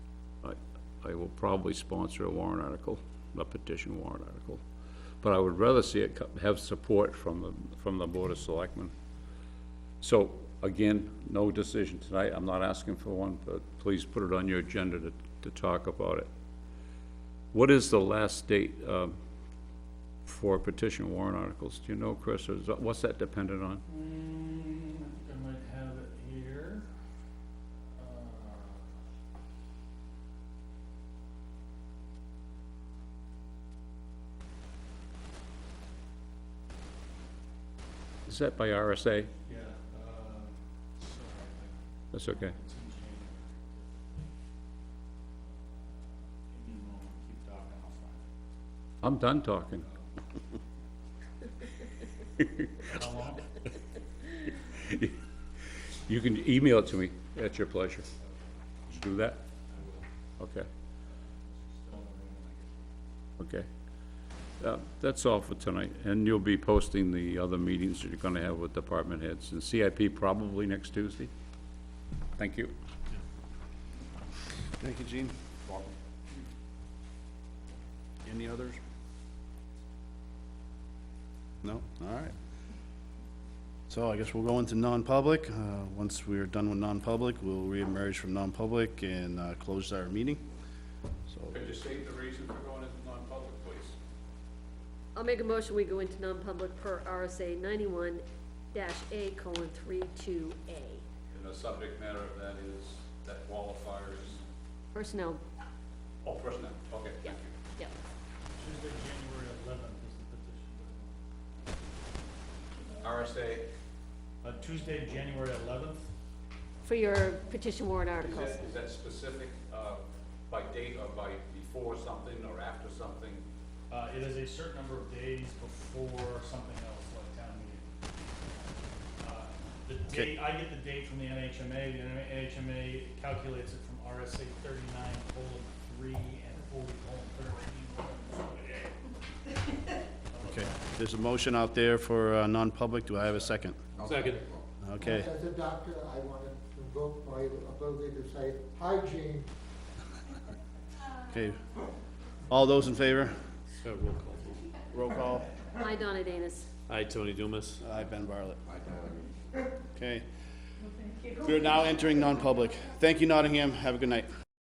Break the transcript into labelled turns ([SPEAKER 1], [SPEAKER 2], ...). [SPEAKER 1] I will probably sponsor a warrant article, a petition warrant article. But I would rather see it co- have support from the, from the Board of Selectmen. So, again, no decision tonight, I'm not asking for one, but please put it on your agenda to, to talk about it. What is the last date, um, for petition warrant articles? Do you know, Chris, or is, that- what's that dependent on?
[SPEAKER 2] Mm, I think I might have it here. Uh,
[SPEAKER 1] Is that by RSA?
[SPEAKER 2] Yeah, uh, sorry, I think
[SPEAKER 1] That's okay.
[SPEAKER 2] it's in January. Give me a moment, keep talking, I'll find
[SPEAKER 1] I'm done talking.
[SPEAKER 2] it. How long?
[SPEAKER 1] You can email it to me, at your pleasure. Just do that? Okay, okay. Uh, That's all for tonight, and you'll be posting the other meetings that you're gonna have with department heads, and CIP probably next Tuesday. Thank you.
[SPEAKER 3] Thank you, Gene. Any others? No? All right. So I guess we'll go into non-public. Uh, Once we are done with non-public, we'll reemerge from non-public and uh, close our meeting. So,
[SPEAKER 1] Could you state the reason for going into non-public, please?
[SPEAKER 4] I'll make a motion, we go into non-public per RSA ninety-one dash A colon three two A.
[SPEAKER 1] And the subject matter of that is, that qualifiers,
[SPEAKER 4] Personnel,
[SPEAKER 1] oh, personnel, okay,
[SPEAKER 4] yeah, yeah.
[SPEAKER 2] Tuesday, January eleventh is the petition deadline.
[SPEAKER 1] RSA,
[SPEAKER 2] Uh, Tuesday, January eleventh?
[SPEAKER 4] For your petition warrant articles.
[SPEAKER 1] is that specific, uh, by date or by before something or after something?
[SPEAKER 2] Uh, it is a certain number of days before something else, like town meeting. Uh, The
[SPEAKER 3] Okay.
[SPEAKER 2] date, I get the date from the NHMA, the NHMA calculates it from RSA thirty-nine colon three and forty colon thirteen. colon forty-eight.
[SPEAKER 3] okay, there's a motion out there for uh, non-public. Do I have a second?
[SPEAKER 1] Second.
[SPEAKER 3] Okay,
[SPEAKER 5] As a doctor, I want to invoke my ability to say, hi, Gene.
[SPEAKER 3] okay. All those in favor? Roll call.
[SPEAKER 4] Hi, Donna Danus.
[SPEAKER 6] Hi, Tony Dumas.
[SPEAKER 3] Aye, Ben Uh, Bartlett. Okay. We're now entering non-public. Thank you, Nottingham. Have a good night.